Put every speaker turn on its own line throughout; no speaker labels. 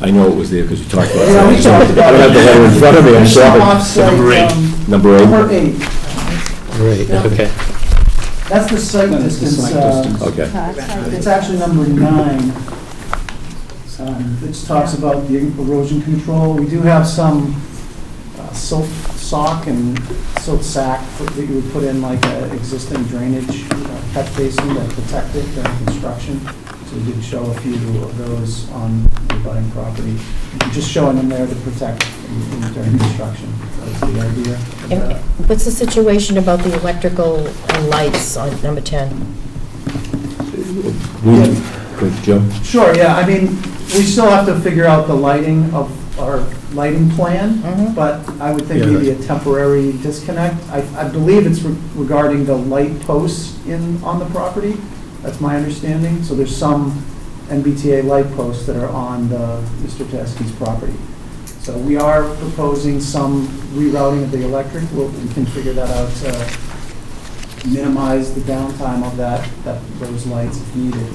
I know it was there because you talked about it.
Yeah, we talked about it.
I don't have the letter in front of me, I'm sorry.
Off-site,
Number eight.
um,
Number
Number
eight?
eight,
Right,
Yeah.
okay.
that's the site distance. uh,
Okay.
It's actually number nine, um, which talks about the erosion control. We do have some uh, silt sock and silt sack that you would put in like an existing drainage uh, catch basin that protect it during construction. So we did show a few of those on the abutting property, just showing them there to protect during construction. That's the idea of
And
that.
What's the situation about the electrical and lights on number 10?
We- Good, Joe?
Sure, yeah, I mean, we still have to figure out the lighting of our lighting plan,
Mhm.
but I would think
Yeah,
maybe a temporary disconnect. I, I believe it's re- regarding the light posts in, on the property, that's my understanding. So there's some MBTA light posts that are on the, Mr. Teskey's property. So we are proposing some rerouting of the electric, we'll, we can figure that out to minimize the downtime of that, that, those lights if needed.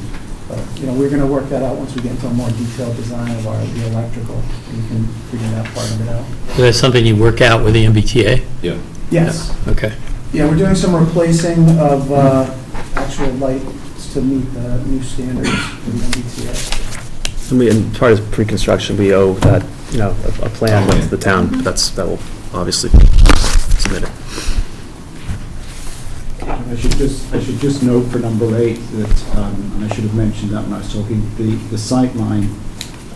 But, you know, we're gonna work that out once we get into a more detailed design of our, the electrical, and we can figure that part of it out.
Is that something you work out with the MBTA?
Yeah.
Yes.
Okay.
Yeah, we're doing some replacing of uh, actual lights to meet the new standards for the MBTA.
And we, and as far as pre-construction, we owe that, you know, a a plan to the town, but that's, that will obviously submit it.
I should just, I should just note for number eight that, um, and I should have mentioned that when I was talking, the, the sightline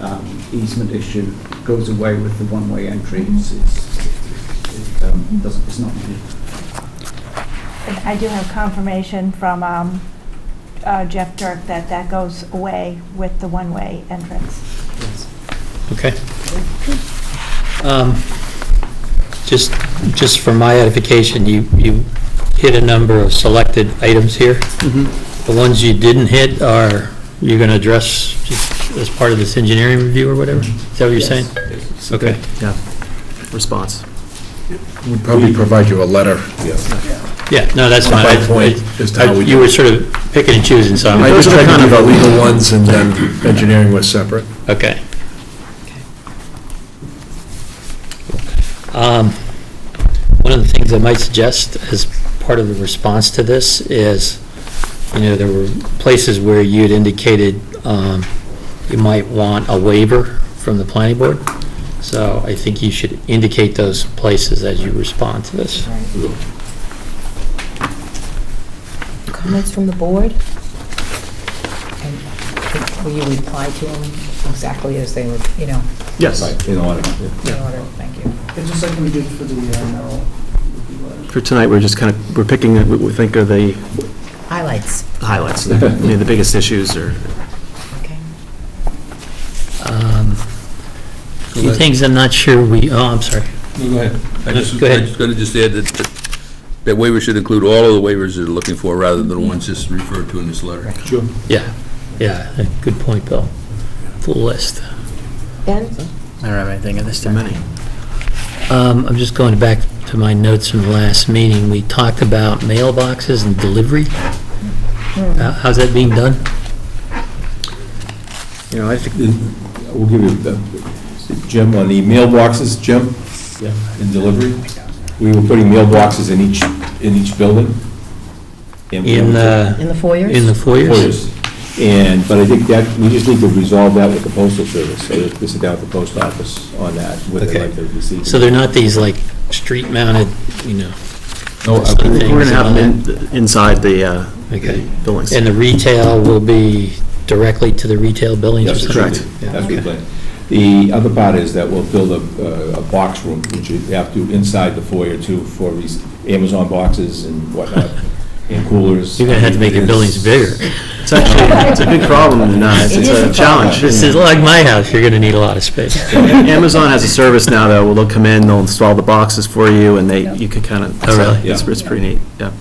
um, easement issue goes away with the one-way entry. It's, it's, it um, doesn't, it's not needed.
I do have confirmation from um, uh, Jeff Dirk that that goes away with the one-way entrance.
Okay. Um, Just, just for my edification, you, you hit a number of selected items here. The ones you didn't hit are, you're going to address just as part of this engineering review or whatever? Is that what you're saying? Okay.
Yeah, response.
We'll probably provide you a letter.
Yeah, no, that's fine.
By
I-
point, just how
I-
we
You
do
were sort of picking and choosing, so
I
I'm,
just
Those are
tried to
kind
do the
of-
legal ones, and then engineering was separate.
okay. Um, One of the things I might suggest as part of the response to this is, you know, there were places where you'd indicated um, you might want a waiver from the planning board. So I think you should indicate those places as you respond to this.
Comments from the board?
And Will you reply to them exactly as they were, you know,
Yes,
Right, in order. yeah.
in order? Thank you.
It's just like we did for the uh, Merrill review letter.
for tonight, we're just kind of, we're picking, what we think are the
Highlights,
highlights, the you know, the biggest issues or
okay?
Um, Two things I'm not sure we, oh, I'm sorry.
No, go ahead. I just,
Go ahead.
I just going to just add that, that- that waiver should include all of the waivers that are looking for, rather than the ones just referred to in this letter.
Yeah, yeah, good point, Bill. Full list.
Ben?
I don't have anything at this
too many.
Um, I'm just going back to my notes from the last meeting. We talked about mailboxes and delivery. How- How's that being done?
You know, I think
We'll give you, the- Jim, on the mailboxes, Jim? Yeah. In delivery? We were putting mailboxes in each, in each building? and we
In uh,
were-
the,
In the foyers?
in the foyers?
Foyers. And, but I think that, we just need to resolve that with the postal service, so that we sit down with the post office on that, whether they
Okay.
like to receive.
So they're not these like street mounted, you know,
No, I-
things
we're going to have
on
them
that?
in- inside the uh,
Okay.
buildings.
And the retail will be directly to the retail buildings or
Yes,
something?
correct.
Yeah,
That's the
okay.
plan. The other part is that we'll build a, uh, a box room, which you have to inside the foyer too, for these Amazon boxes and whatnot, and coolers.
You're going to have to make your buildings bigger.
It's actually, it's a big problem in uh, it's a challenge.
This is like my house, you're going to need a lot of space.
Amazon has a service now, though, where they'll come in, they'll install the boxes for you, and they, you could kind of,
Oh, really?
it's, it's pretty neat, yeah.